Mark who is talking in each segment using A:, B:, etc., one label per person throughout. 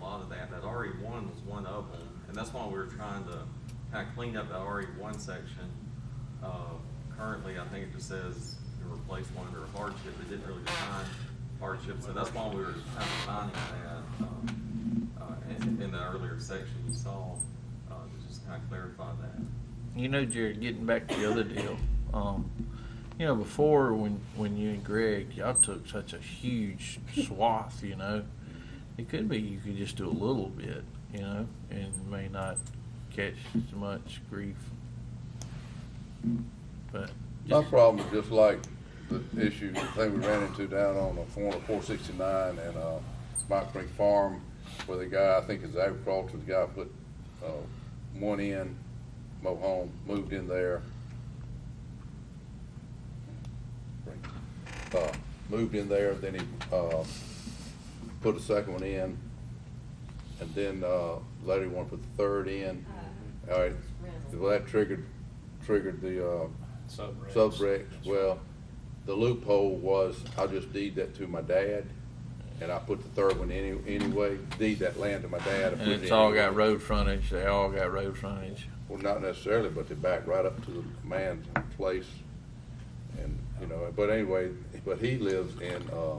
A: E one was one of them, and that's why we were trying to kind of clean up the RE one section. Uh, Currently, I think it just says to replace one under hardship, it didn't really define hardship, so that's why we were kind of finding that, um, uh, in, in the earlier section you saw, uh, to just kind of clarify that.
B: You know, Jared, getting back to the other deal, um, you know, before when when you and Greg y'all took such a huge swath, you know, it could be you could just do a little bit, you know, and may not catch as much grief. But
C: My
B: just-
C: problem is just like the issue that we ran into down on the corner of four sixty-nine and, uh, Mike Creek Farm, where the guy, I think is agriculture, the guy put, uh, one in, mobile home, moved in there. Uh, moved in there, then he, uh, put a second one in, and then, uh, later he wanted to put the third in. All right, well, that triggered, triggered the, uh,
D: Subregs.
C: Subrex, well, the loophole was, I just deed that to my dad, and I put the third one any, anyway, deed that land to my dad. I put
B: and
C: it
B: it's all got
C: anyway.
B: road frontage. They all got road frontage.
C: Well, not necessarily, but they back right up to the man's place, and, you know, but anyway, but he lives in, uh,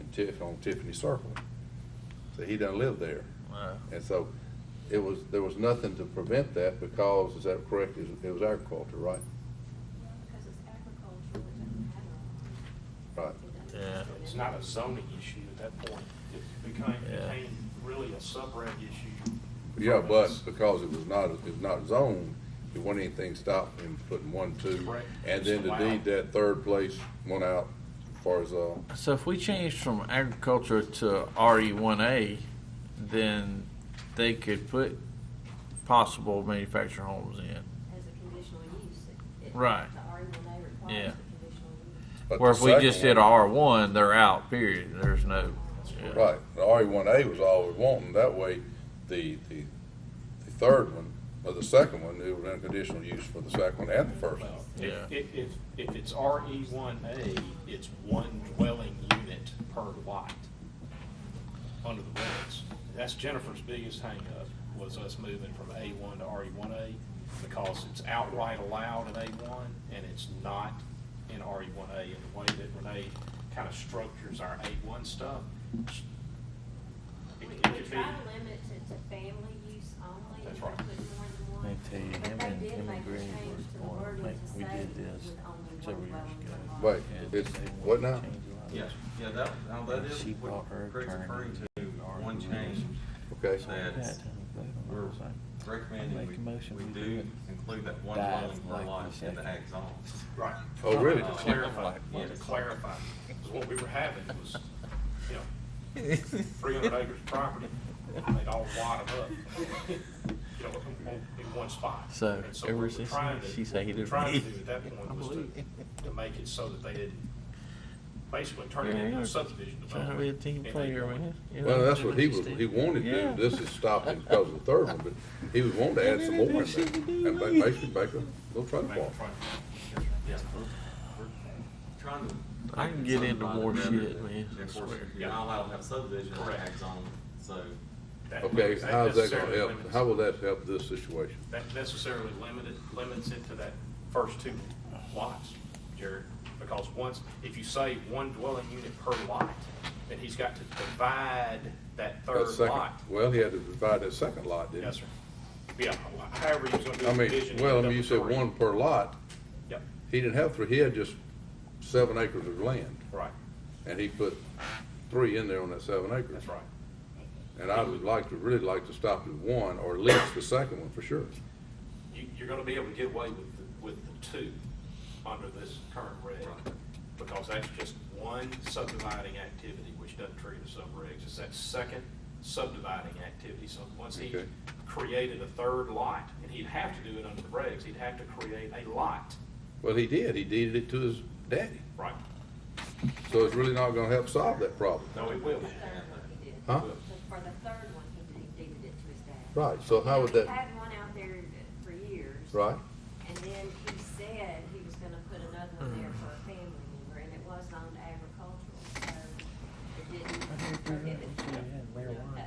C: in Tiff, on Tiffany Circle, so he doesn't live there.
B: Uh,
C: And so, it was, there was nothing to prevent that because, is that correct, It was- it was agriculture, right?
E: Because it's agricultural, it doesn't matter.
C: Right.
B: Yeah.
D: It's not a zoning issue at that point. It became,
B: Yeah.
D: became really a subreg issue.
C: Yeah,
D: from
C: but
D: us.
C: because it was not, it was not zoned, it wasn't anything stopped him putting one, two.
D: Right.
C: And then to
D: Wow.
C: deed that third place, one out, as far as, uh,
B: So if we change from agriculture to RE1A, then they could put possible manufactured homes in.
E: As a conditional use. it- it-
B: Right.
E: The R one A
B: Yeah.
E: requires a conditional use.
C: but
B: Where
C: the
B: if we just
C: second
B: did
C: one-
B: R1, they're out, period. There's no. yeah.
C: Right, the RE one A was all we wanted, that way, the, the, the third one, or the second one, it was unconditional use for the second one and the first one.
D: Well,
B: Yeah.
D: if, if, if- if it's RE one A, it's one dwelling unit per lot under the regs. That's Jennifer's biggest hangup, was us moving from A one to RE one A, because it's outright allowed in A one, and it's not in RE one A. And the way that Renee kind of structures our A one stuff,
E: We
D: it it
E: we
D: could be.
E: try to limit it to family use only.
D: That's
E: and
D: right.
E: put more than one.
B: Let me tell you,
E: But
B: him
E: they
B: and-
E: did
B: him
E: make
B: and
E: a
B: Green were
E: change to the
B: going,
E: wording
B: like,
E: to
B: we
E: say
B: did this
E: with only one
B: several years
E: dwelling
B: ago.
E: per lot.
C: Wait,
B: Yeah.
C: it's, what now?
A: Yeah, yeah, that, now that is
B: She
A: what
B: bought her
A: Craig's
B: attorney
A: referring to,
B: to our
A: one change
C: Okay,
A: that we're recommending
B: Make a motion,
A: we, we
B: we do
A: do
B: it.
A: include that one
B: Dive
A: dwelling per
B: like
A: lot
B: this
A: in the
B: second.
A: ag zone.
D: Right.
C: oh, really?
A: Uh,
D: To clarify, yeah, to
A: Yes.
D: clarify, 'cause what we were having was, you know, three hundred acres of property, and they'd all wad 'em up, you know, in- in- in one spot.
B: So,
D: And
B: ever
D: what we're
B: since
D: trying to-
B: she say he
D: what we're
B: didn't
D: Trying to
B: believe.
D: do at that
B: I
D: point was
B: believe.
D: to, to make it so that they didn't, basically turn it
B: Yeah,
D: into
B: you're
D: a subdivision
B: Trying
D: development.
B: to be a team
D: in
B: player,
D: A1.
B: man. You
C: Well,
B: know?
C: that's what he was, he wanted to,
B: Yeah.
C: do. this is stopping because of the third one, but he was wanting to add some more in there. And ba- basically make a little trade
D: Make it
C: for
D: front.
A: Yeah, we're, we're trying to.
B: I can get into
A: something
B: more
A: better
B: shit,
A: than-
B: man,
A: and Of
B: I
A: course,
B: swear.
A: you're not allowed to have subdivision in the
D: Correct.
A: ag zone, so.
D: That-
C: Okay, how's that gonna
D: necessarily
C: help,
D: limits-
C: how will that help this situation?
D: That necessarily limited, limits it to that first two lots, Jared, because once, if you say one dwelling unit per lot, then he's got to divide
C: That
D: that third
C: second-
D: lot.
C: Well, he had to divide that second lot, didn't
D: Yes,
C: he?
D: sir. Yeah, however he's gonna do
C: I
D: the
C: mean,
D: division.
C: well, I
D: he'll
C: mean, you
D: do it
C: said
D: three.
C: one per lot,
D: Yep,
C: he didn't have three, he had just seven acres of land,
D: right,
C: and he put three in there on that seven acres.
D: that's right.
C: And I would like to, really like to stop at one, or at least the second one for sure.
D: You, you're gonna be able to get away with, the- with the two under this current reg, because that's just one subdividing activity, which doesn't trigger the subregs, it's that second subdividing activity, so once he
C: Okay.
D: created a third lot, and he'd have to do it under the regs, he'd have to create a lot,
C: Well, he did, he deeded it to his daddy,
D: right?
C: so it's really not gonna help solve that problem.
D: No, it will.
E: The third one he did.
C: Huh?
E: The- For the third one, he did- he deeded it to his dad.
C: Right, so how would
E: He
C: that,
E: had one out there for years.
C: right?
E: And then he said he was gonna put another one there for a family member, and it was on agricultural, so it didn't prohibit. you know,